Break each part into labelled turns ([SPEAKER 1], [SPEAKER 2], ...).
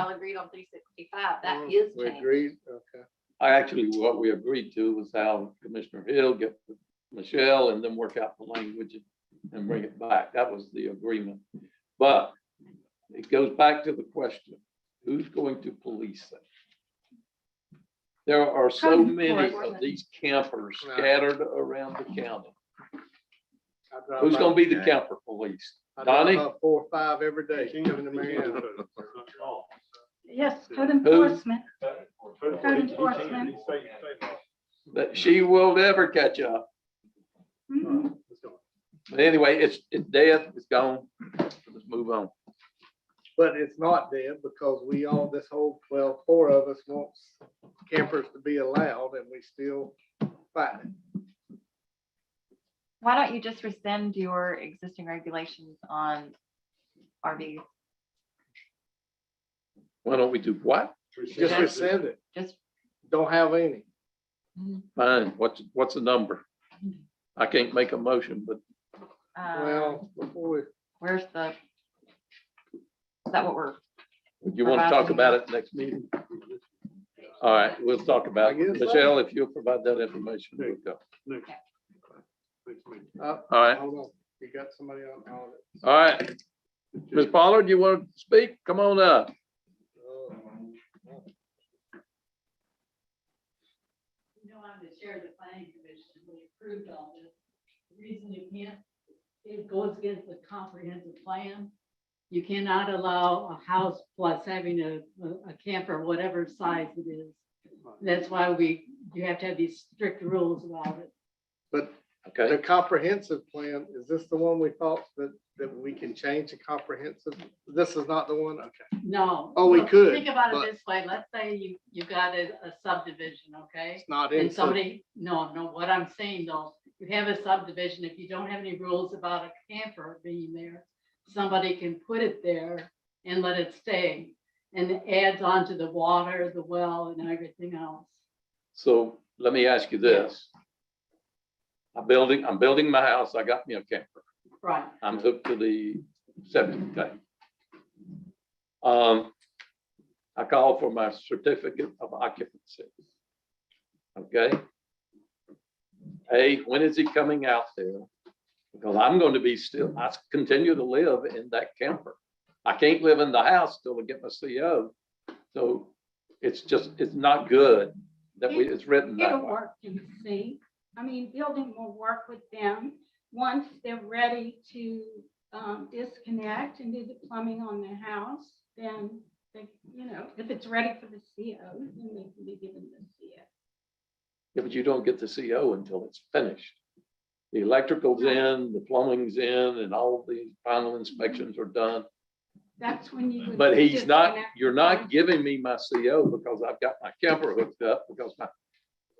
[SPEAKER 1] all agreed on three sixty-five, that
[SPEAKER 2] Mm,
[SPEAKER 1] is
[SPEAKER 2] We
[SPEAKER 1] changed.
[SPEAKER 2] agreed, okay.
[SPEAKER 3] I actually, what we agreed to was how Commissioner Hill get with Michelle and then work out the language and bring it back. That was the agreement. But it goes back to the question, who's going to police it? There are so
[SPEAKER 1] Code
[SPEAKER 3] many of
[SPEAKER 1] enforcement.
[SPEAKER 3] these campers
[SPEAKER 2] Right.
[SPEAKER 3] scattered around the county.
[SPEAKER 2] I drive
[SPEAKER 3] Who's
[SPEAKER 2] by-
[SPEAKER 3] gonna be the camper police?
[SPEAKER 2] I drive
[SPEAKER 3] Donnie?
[SPEAKER 2] by Four or five every day, coming to Marietta.
[SPEAKER 4] Yes, code
[SPEAKER 3] Who?
[SPEAKER 4] enforcement. Code enforcement.
[SPEAKER 3] That she will never catch up.
[SPEAKER 4] Mhm.
[SPEAKER 3] But anyway, it's, it's dead, it's gone. Let's move on.
[SPEAKER 2] But it's not dead because we all, this whole, well, four of us wants campers to be allowed and we still fight it.
[SPEAKER 5] Why don't you just rescind your existing regulations on RV?
[SPEAKER 3] Why don't we do what?
[SPEAKER 2] Just rescind it.
[SPEAKER 5] Just, mm,
[SPEAKER 2] Don't have any.
[SPEAKER 3] Fine, what's, what's the number? I can't make a motion, but
[SPEAKER 5] uh,
[SPEAKER 2] Well, before we,
[SPEAKER 5] where's the? Is that what we're,
[SPEAKER 3] you want to talk about it next meeting? All right, we'll talk about
[SPEAKER 2] I
[SPEAKER 3] it.
[SPEAKER 2] guess so.
[SPEAKER 3] Michelle, if you'll provide that information, we'll go.
[SPEAKER 2] uh,
[SPEAKER 3] All right,
[SPEAKER 2] hold on, you got somebody on on it.
[SPEAKER 3] all right. Ms. Pollard, you want to speak? Come on up.
[SPEAKER 2] Oh.
[SPEAKER 6] No, I'm the chair of the planning commission, we approved all this. The reason you can't, it goes against the comprehensive plan. You cannot allow a house plus having a, a camper, whatever size it is. That's why we, you have to have these strict rules about it.
[SPEAKER 2] But the
[SPEAKER 3] Okay,
[SPEAKER 2] comprehensive plan, is this the one we thought that, that we can change the comprehensive? This is not the one, okay.
[SPEAKER 6] No.
[SPEAKER 2] Oh, we
[SPEAKER 6] Look,
[SPEAKER 2] could,
[SPEAKER 6] Think about
[SPEAKER 2] but-
[SPEAKER 6] it this way, let's say you, you got a a subdivision, okay?
[SPEAKER 2] It's not in.
[SPEAKER 6] And somebody, no, no, what I'm saying though, you have a subdivision, if you don't have any rules about a camper being there, somebody can put it there and let it stay. And it adds on to the water, the well and everything else.
[SPEAKER 3] so let me ask you this. I'm building, I'm building my house. I got me a camper.
[SPEAKER 6] Right,
[SPEAKER 3] I'm hooked to the septic tank. Um, I call for my certificate of occupancy. Okay? A, when is he coming out there? Because I'm going to be still, I continue to live in that camper. I can't live in the house till I get my CO. So it's just, it's not good that we, it's written that
[SPEAKER 4] It'll
[SPEAKER 3] way.
[SPEAKER 4] work, you see. I mean, building will work with them once they're ready to um, disconnect and do the plumbing on their house, then they, you know, if it's ready for the CO, then they can be given the CO.
[SPEAKER 3] Yeah, but you don't get the CO until it's finished. The electrical's in, the plumbing's in, and all the final inspections are done.
[SPEAKER 6] Mm-hmm.
[SPEAKER 4] That's when you. would
[SPEAKER 3] But he's not,
[SPEAKER 4] disconnect
[SPEAKER 3] you're
[SPEAKER 4] them.
[SPEAKER 3] not giving me my CO because I've got my camper hooked up because my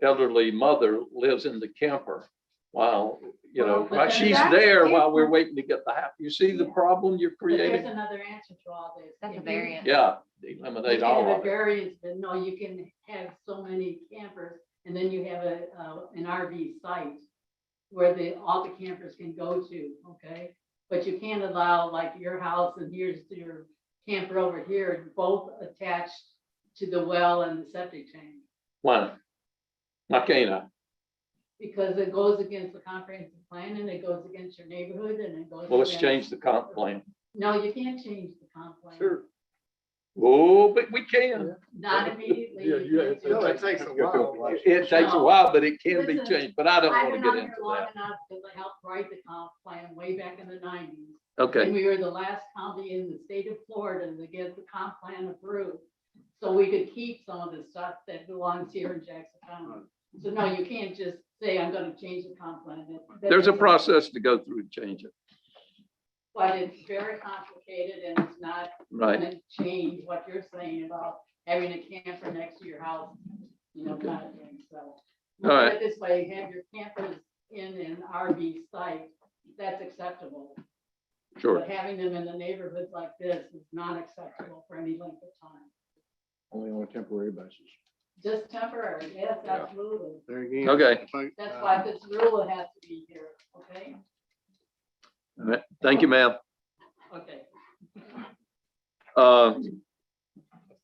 [SPEAKER 3] elderly mother lives in the camper. While, you know,
[SPEAKER 6] Well, but
[SPEAKER 3] while
[SPEAKER 6] then
[SPEAKER 3] she's
[SPEAKER 4] that's
[SPEAKER 3] there while we're
[SPEAKER 4] different.
[SPEAKER 3] waiting to get the house. You see the
[SPEAKER 4] Yeah.
[SPEAKER 3] problem you're
[SPEAKER 6] but there's
[SPEAKER 3] creating?
[SPEAKER 6] another answer to all this.
[SPEAKER 5] that's a
[SPEAKER 6] If you-
[SPEAKER 5] variant.
[SPEAKER 3] Yeah,
[SPEAKER 6] You
[SPEAKER 3] eliminate
[SPEAKER 6] can have
[SPEAKER 3] all
[SPEAKER 6] a
[SPEAKER 3] of it.
[SPEAKER 6] variance, but no, you can have so many campers and then you have a, uh, an RV site where the, all the campers can go to, okay? But you can't allow like your house and here's your camper over here, both attached to the well and the septic tank.
[SPEAKER 3] Why? Why can't I?
[SPEAKER 6] Because it goes against the comprehensive plan and it goes against your neighborhood and it goes.
[SPEAKER 3] Well, let's
[SPEAKER 6] against-
[SPEAKER 3] change the comp plan.
[SPEAKER 6] No, you can't change the comp plan.
[SPEAKER 2] Sure.
[SPEAKER 3] Oh, but we can.
[SPEAKER 6] Not immediately.
[SPEAKER 7] Yeah, you-
[SPEAKER 6] can't
[SPEAKER 7] it's a-
[SPEAKER 6] do
[SPEAKER 2] No,
[SPEAKER 6] it.
[SPEAKER 2] it takes a while.
[SPEAKER 3] It takes a while, but it can be
[SPEAKER 6] Listen,
[SPEAKER 3] changed, but I don't
[SPEAKER 6] I've
[SPEAKER 3] want to
[SPEAKER 6] been
[SPEAKER 3] get
[SPEAKER 6] on
[SPEAKER 3] into
[SPEAKER 6] here long enough because I helped write the comp plan way back in the nineties.
[SPEAKER 3] that. Okay,
[SPEAKER 6] And we were the last county in the state of Florida to get the comp plan approved. So we could keep some of the stuff that belongs here in Jackson County. So no, you can't just say, I'm gonna change the comp plan. That- that
[SPEAKER 3] there's a
[SPEAKER 6] doesn't-
[SPEAKER 3] process to go through and change it,
[SPEAKER 6] But it's very complicated and it's not
[SPEAKER 3] right?
[SPEAKER 6] gonna change what you're saying about having a camper next to your house, you know,
[SPEAKER 3] Okay.
[SPEAKER 6] kind of thing, so.
[SPEAKER 3] All right.
[SPEAKER 6] Put it This way, have your campers in an RV site, that's acceptable.
[SPEAKER 3] Sure.
[SPEAKER 6] But having them in the neighborhood like this is not acceptable for any length of time.
[SPEAKER 7] Only on a temporary basis.
[SPEAKER 6] Just temporary, yes,
[SPEAKER 7] Yeah.
[SPEAKER 6] absolutely.
[SPEAKER 2] There again. uh,
[SPEAKER 3] Okay.
[SPEAKER 6] That's why this rule has to be here, okay?
[SPEAKER 3] All right. Thank you, ma'am.
[SPEAKER 6] Okay.
[SPEAKER 3] Uh,